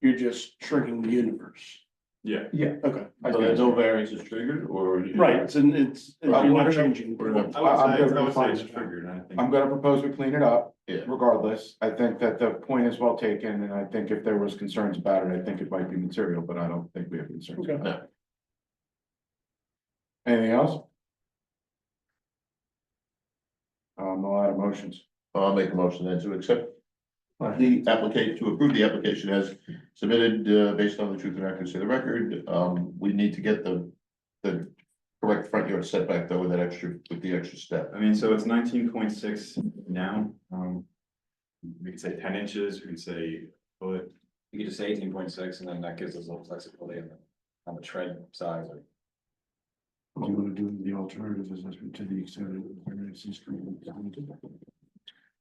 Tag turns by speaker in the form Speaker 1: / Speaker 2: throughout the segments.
Speaker 1: You're just shrinking the universe.
Speaker 2: Yeah.
Speaker 3: Yeah.
Speaker 1: Okay. I
Speaker 2: So
Speaker 1: got
Speaker 2: there's
Speaker 1: it.
Speaker 2: no variance is triggered or?
Speaker 1: Right, it's, and it's, you're not changing.
Speaker 2: Or not.
Speaker 1: the-
Speaker 2: I
Speaker 3: I'm
Speaker 2: would say,
Speaker 3: gonna
Speaker 2: I would say
Speaker 3: find
Speaker 2: it's
Speaker 3: it.
Speaker 2: triggered, I think.
Speaker 3: I'm gonna propose we clean it up
Speaker 2: Yeah.
Speaker 3: regardless. I think that the point is well taken, and I think if there was concerns about it, I think it might be material, but I don't think we have concerns.
Speaker 1: Okay.
Speaker 2: No.
Speaker 3: Anything else? Um, a lot of motions.
Speaker 2: I'll make a motion then to accept the application, to approve the application as submitted, uh, based on the truth and accuracy of the record. Um, we need to get the, the correct front yard setback though with that extra, with the extra step.
Speaker 4: I mean, so it's nineteen point six now, um. We could say ten inches, we could say, but
Speaker 5: You could just say eighteen point six and then that gives us a little flexibility on the, on the tread size or.
Speaker 3: Do you wanna do the alternative assessment to the extent of?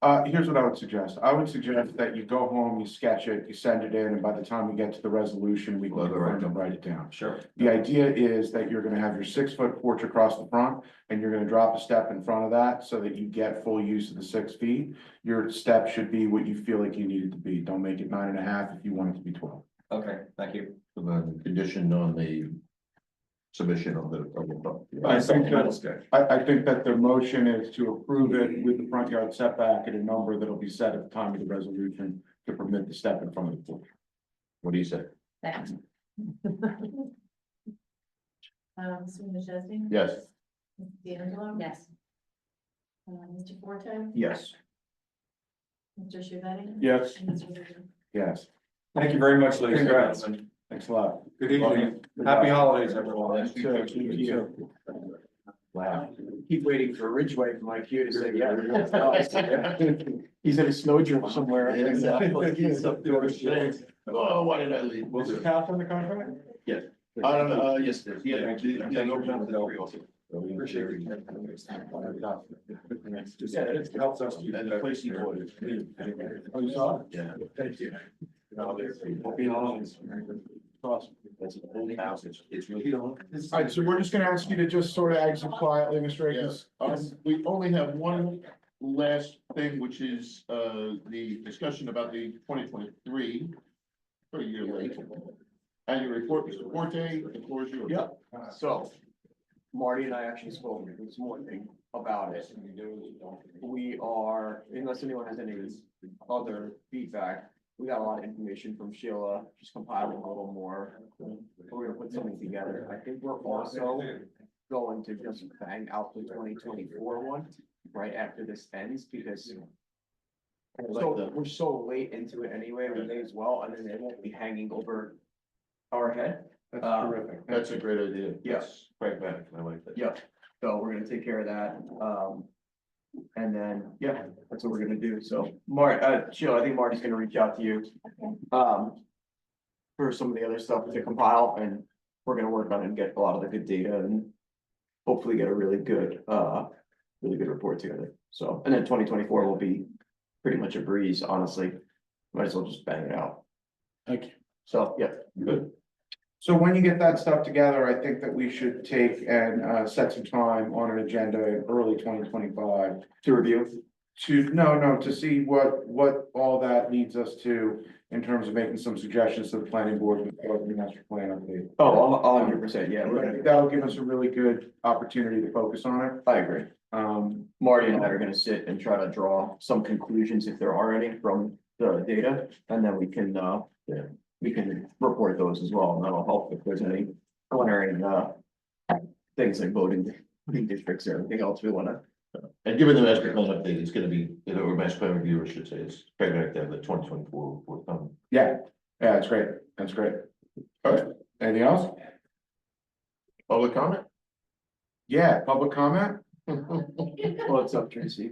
Speaker 3: Uh, here's what I would suggest. I would suggest that you go home, you sketch it, you send it in, and by the time we get to the resolution, we can
Speaker 2: Well, right.
Speaker 3: confirm and write it down.
Speaker 5: Sure.
Speaker 3: The idea is that you're gonna have your six foot porch across the front and you're gonna drop a step in front of that so that you get full use of the six feet. Your step should be what you feel like you need it to be. Don't make it nine and a half if you want it to be twelve.
Speaker 5: Okay, thank you.
Speaker 2: And then conditioned on the submission of the. of the-
Speaker 3: I think
Speaker 5: Supplemental sketch.
Speaker 3: I, I think that the motion is to approve it with the front yard setback at a number that'll be set at the time of the resolution to permit the step in front of the porch.
Speaker 2: What do you say?
Speaker 6: Thanks. Um, Mr. Majeski?
Speaker 2: Yes.
Speaker 6: Mrs. D'Angelo? Yes. Uh, Mr. Forte?
Speaker 3: Yes.
Speaker 6: Mr. Shavani?
Speaker 1: Yes.
Speaker 6: And Mr. Rizzo?
Speaker 3: Yes,
Speaker 5: Thank you very much, ladies and
Speaker 3: Congrats.
Speaker 5: gentlemen.
Speaker 3: thanks a lot.
Speaker 5: Good evening. Happy holidays, everyone.
Speaker 3: Sure, thank you.
Speaker 2: Wow.
Speaker 7: Keep waiting for Ridgeway from IQ to say yes. He's at a snowdrift somewhere.
Speaker 2: Exactly. He's up there with shades. Oh, why did I leave?
Speaker 3: Was it passed on the contract?
Speaker 2: I don't know, uh, yes, there's, yeah.
Speaker 5: Thank you. Appreciate
Speaker 2: Appreciate
Speaker 5: it.
Speaker 7: Yeah, it helps us. to-
Speaker 2: And the place you ordered.
Speaker 7: Oh, you saw it?
Speaker 2: Yeah.
Speaker 7: Thank you.
Speaker 2: Happy holidays. Awesome. That's an old house, it's, it's really old.
Speaker 3: All right, so we're just gonna ask you to just sort of exit quietly, Mr. Akins.
Speaker 2: Um, we only have one last thing, which is, uh, the discussion about the twenty twenty-three. For a year late. Annual report, Mr. Forte, the floor is yours.
Speaker 7: Yep. So Marty and I actually spoke this morning about it. We are, unless anyone has any other feedback, we got a lot of information from Sheila, just compiling a little more. We're gonna put something together. I think we're also going to just bang out the twenty twenty-four one right after this ends because so we're so late into it anyway, we may as well, and then it won't be hanging over our head.
Speaker 3: That's
Speaker 7: Uh,
Speaker 3: terrific.
Speaker 2: That's a great idea.
Speaker 7: Yes.
Speaker 2: Pragmatic, I like that.
Speaker 7: Yep, so we're gonna take care of that, um. And then, yeah, that's what we're gonna do, so Mar, uh, Sheila, I think Marty's gonna reach out to you. Um. For some of the other stuff to compile and we're gonna work on it and get a lot of the good data and. Hopefully get a really good, uh, really good report together, so, and then twenty twenty-four will be pretty much a breeze, honestly. Might as well just bang it out,
Speaker 1: Thank you.
Speaker 7: so, yeah.
Speaker 3: So when you get that stuff together, I think that we should take and uh set some time on an agenda in early twenty twenty-five.
Speaker 7: To review,
Speaker 3: To, no, no, to see what what all that leads us to in terms of making some suggestions to the planning board and the master plan update.
Speaker 7: oh, a hundred percent, yeah, we're gonna,
Speaker 3: That'll give us a really good opportunity to focus on it.
Speaker 7: I agree.
Speaker 3: Um,
Speaker 7: Marty and I are gonna sit and try to draw some conclusions if there are any from the data, and then we can, uh, yeah, we can report those as well, and that'll help if there's any preliminary, uh, things like voting, voting districts or anything else we wanna,
Speaker 2: And given the master plan update, it's gonna be, you know, or master plan review, I should say, it's pragmatic to have the twenty twenty-four report Um, done.
Speaker 3: yeah, yeah, that's great, that's great. All right, anything else?
Speaker 2: Public comment?
Speaker 3: Yeah, public comment?
Speaker 7: well, it's up, Tracy.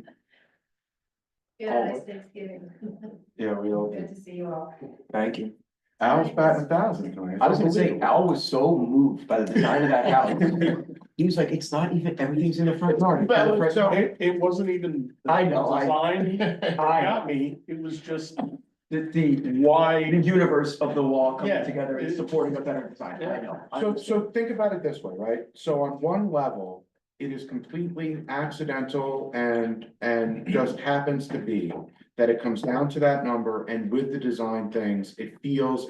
Speaker 6: Yeah, nice Thanksgiving.
Speaker 3: Yeah, we all,
Speaker 6: Good to see you all.
Speaker 7: Thank you.
Speaker 3: Al's batting a thousand tonight.
Speaker 7: I was gonna say, Al was so moved by the design of that house. He was like, it's not even, everything's in the front yard. it's in the front
Speaker 1: So
Speaker 7: yard."
Speaker 1: it, it wasn't even.
Speaker 7: I know, I-
Speaker 1: Design
Speaker 7: I,
Speaker 1: got me, it was just
Speaker 7: the, the
Speaker 1: why.
Speaker 7: the universe of the wall
Speaker 1: Yeah.
Speaker 7: coming together and supporting a better design, I know. I
Speaker 3: So,
Speaker 7: understand.
Speaker 3: so think about it this way, right? So on one level, it is completely accidental and, and just happens to be that it comes down to that number and with the design things, it feels